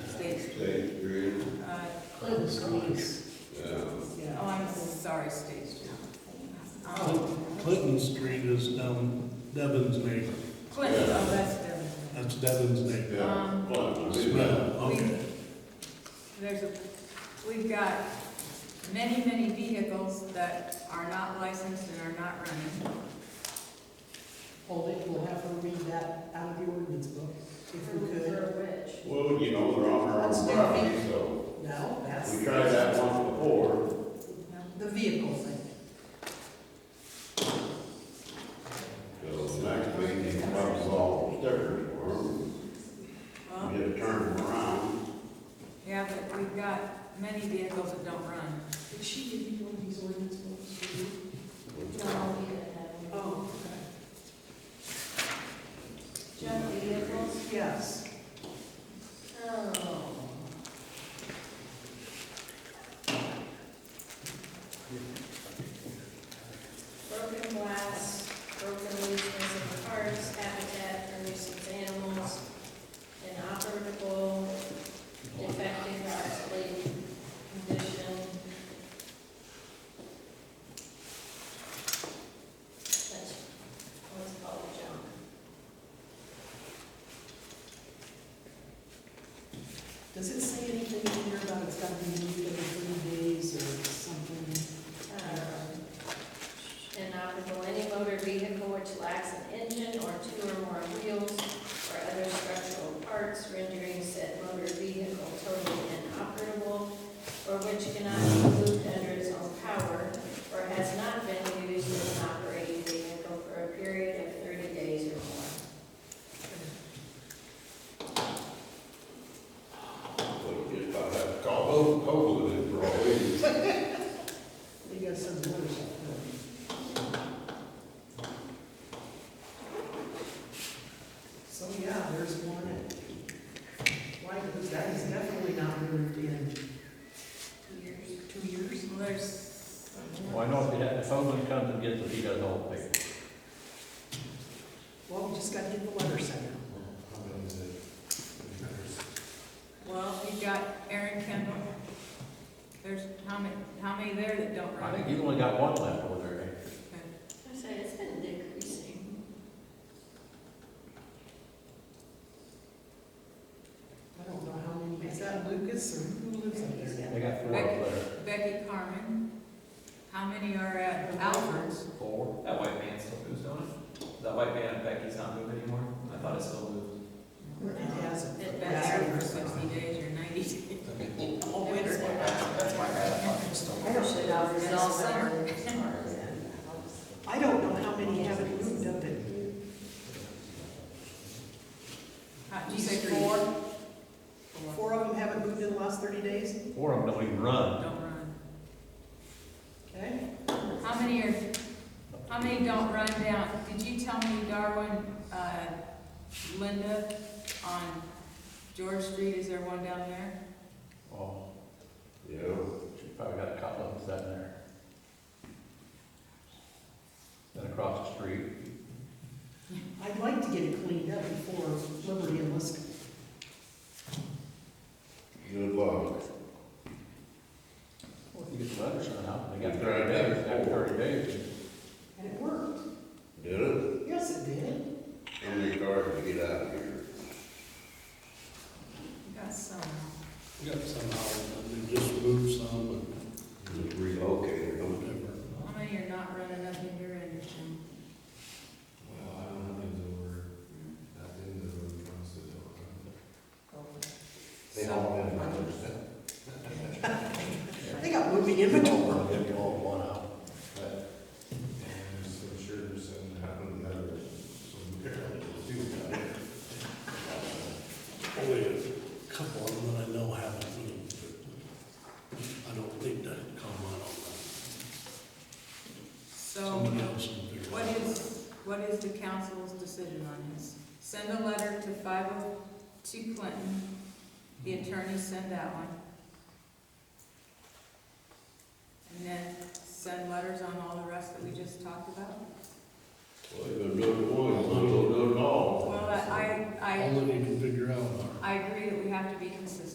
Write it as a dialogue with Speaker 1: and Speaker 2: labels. Speaker 1: Clovis Place.
Speaker 2: Yeah.
Speaker 1: Yeah.
Speaker 3: Uh, Oh, I'm sorry, State Street.
Speaker 4: Oh.
Speaker 3: Um,
Speaker 1: Clinton- Clinton Street is down Devon's neighbor.
Speaker 3: Clinton, oh, that's different.
Speaker 1: That's Devon's neighbor.
Speaker 2: Yeah,
Speaker 3: Um,
Speaker 2: well, I mean,
Speaker 1: Well, okay.
Speaker 3: There's a, we've got many, many vehicles that are not licensed and are not running.
Speaker 4: Well, they will have her read that out of the ordinance book, if we could.
Speaker 2: well, you know, they're on our own property, so
Speaker 4: No, that's.
Speaker 2: we tried that once before.
Speaker 4: The vehicle thing.
Speaker 2: So the next week, he rubs all the stickers for them,
Speaker 3: Well,
Speaker 2: you had to turn them around.
Speaker 3: yeah, but we've got many vehicles that don't run.
Speaker 4: Did she give you one of these ordinance books? Oh, okay.
Speaker 5: Junk vehicles,
Speaker 4: Yes.
Speaker 5: oh. Broken glass, broken leaves in parks, habitat for nuisance animals, inoperable, defective or obsolete condition. That's what's called junk.
Speaker 4: Does it say anything in here about it's gotta be moved every three days or something?
Speaker 5: Um, Inoperable any motor vehicle which lacks an engine or two or more wheels or other structural parts rendering said motor vehicle totally inoperable or which cannot be moved under its own power or has not been used as an operating vehicle for a period of thirty days or more.
Speaker 2: So you just about have to call both, both of them for all these.
Speaker 4: You gotta send the letters out. no. So, yeah, there's one. Why, that is definitely not moved in
Speaker 3: Years.
Speaker 4: two years?
Speaker 3: Well, there's.
Speaker 6: Why not, if someone comes and gets it, he does all the paperwork.
Speaker 4: Well, we just gotta get the letter sent out.
Speaker 3: Well, we've got Aaron Kendall. There's how many, how many there that don't
Speaker 6: I think
Speaker 3: run?
Speaker 6: you only got one left over there, eh?
Speaker 5: I say it's been decreasing.
Speaker 4: I don't know how many, is that Lucas or who lives up there?
Speaker 6: They got four up there.
Speaker 3: Becky Carmen. How many are at Albert's?
Speaker 6: Four?
Speaker 7: That white van still moves on it? That white van at Becky's not moving anymore? I thought it still moved.
Speaker 4: It has.
Speaker 3: Been there for sixty days or ninety days.
Speaker 4: All winter.
Speaker 7: That's why I thought it was still.
Speaker 5: I don't think I'll
Speaker 3: resolve
Speaker 4: I don't know how many haven't moved up it.
Speaker 3: How, do you say
Speaker 4: Four.
Speaker 3: three?
Speaker 4: Four of them haven't moved in the last thirty days,
Speaker 6: Four of them don't even run.
Speaker 3: Don't run.
Speaker 4: okay?
Speaker 3: How many are, how many don't run down? Did you tell me Darwin, uh, Linda on George Street, is there one down there?
Speaker 6: Oh,
Speaker 2: Yeah.
Speaker 6: she probably got a couple of them sitting there. Then across the street,
Speaker 4: I'd like to get it cleaned up before Liberty and Lisk.
Speaker 2: Good luck.
Speaker 6: well, if you get the letter sent out, they got
Speaker 2: You tried
Speaker 6: thirty
Speaker 2: that
Speaker 6: days, after
Speaker 2: before.
Speaker 6: thirty days.
Speaker 4: And it worked.
Speaker 2: Did it?
Speaker 4: Yes, it did.
Speaker 2: How many cars did you get out of here?
Speaker 3: You got some.
Speaker 1: We got some out, and they just moved some,
Speaker 2: Just relocated,
Speaker 1: but
Speaker 2: don't
Speaker 1: whatever.
Speaker 3: How many are not running up in your engine?
Speaker 8: Well, I don't know if it's over, that in the road process.
Speaker 2: they?
Speaker 3: So-
Speaker 2: all been around.
Speaker 4: They got moving inventory.
Speaker 6: They all one out.
Speaker 8: But, and I'm sure there's some happened that are some parallels too.
Speaker 1: Only a couple of them that I know haven't moved. but I don't think that come out on
Speaker 3: So,
Speaker 1: that. Somebody else will figure
Speaker 3: what
Speaker 1: it out.
Speaker 3: is, what is the council's decision on this? Send a letter to five oh two Clinton, the attorney send that one. And then send letters on all the rest that we just talked about?
Speaker 2: Well, they've been doing it once, they'll do it all.
Speaker 3: Well, I, I,
Speaker 1: All they need to figure out are
Speaker 3: I agree that we have to be consistent.